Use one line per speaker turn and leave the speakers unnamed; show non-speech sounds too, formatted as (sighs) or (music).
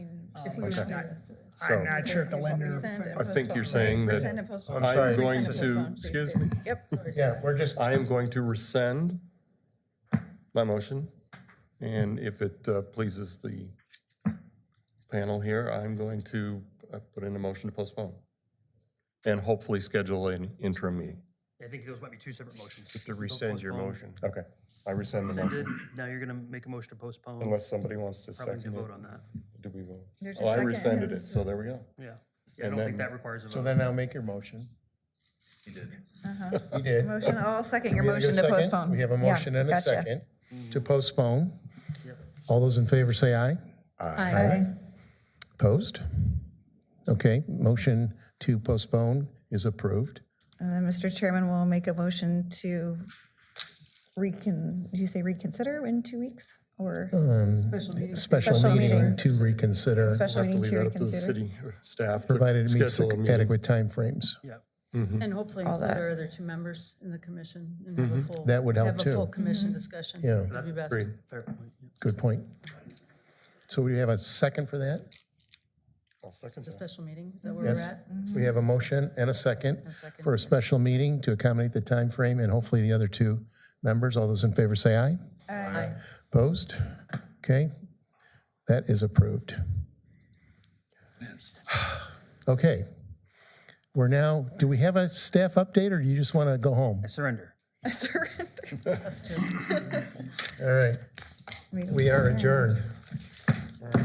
If we were
Okay.
serious.
So-
I'm not sure if the lender,
Um, Send and
I think you're
postpone.
saying that
Send and postpone.
I'm
Please
sorry.
send
going
and
to,
postpone. Please
excuse
do.
me,
Yep.
Yeah, we're just,
I am going to rescind my motion. And if it uh, pleases the panel here, I'm going to uh, put in a motion to postpone and hopefully schedule an interim meeting.
I think those might be two separate motions.
to rescind your motion,
Okay, I rescind the motion
Good. Now you're gonna make a motion to postpone.
unless somebody wants to
Probably need to
second it.
vote on that.
Do we vote?
There's a
Oh, I
second.
rescinded it, so there we go.
Yeah. Yeah,
And
I don't think
then-
that requires a
so
vote.
then I'll make your motion. You did. You did.
Uh-huh. Motion, I'll second your
We have a
motion to
second.
postpone.
We have a
Yeah,
motion and a
gotcha.
second
Mm-hmm.
to postpone. All those in favor say aye.
Aye.
Opposed? Okay, motion to postpone is approved.
And then, Mr. Chairman, we'll make a motion to recon, did you say reconsider in two weeks? Or
Uh,
Special
Special
meeting
meeting.
to reconsider,
special
Have to
meeting
leave
to
that up to the
reconsider?
city staff
provided
to
it meets
schedule a meeting.
adequate timeframes.
Yeah.
And hopefully
All
include
that.
our other two members in the commission and have a full.
That would help
Have a full
too. Mm-hmm.
commission discussion.
Yeah.
Would be best.
Great.
Fair point. yeah.
Good point. So we have a second for that?
I'll second
The
that.
special meeting, is that where we're
Yes.
at?
We have a motion and a second
a second,
for a
yes.
special meeting to accommodate the time frame, and hopefully the other two members. All those in favor say aye.
Aye.
Opposed? Okay, that is approved. (sighs) Okay, we're now, do we have a staff update, or do you just want to go home?
I surrender.
I (laughs) surrender.
All right, we are adjourned.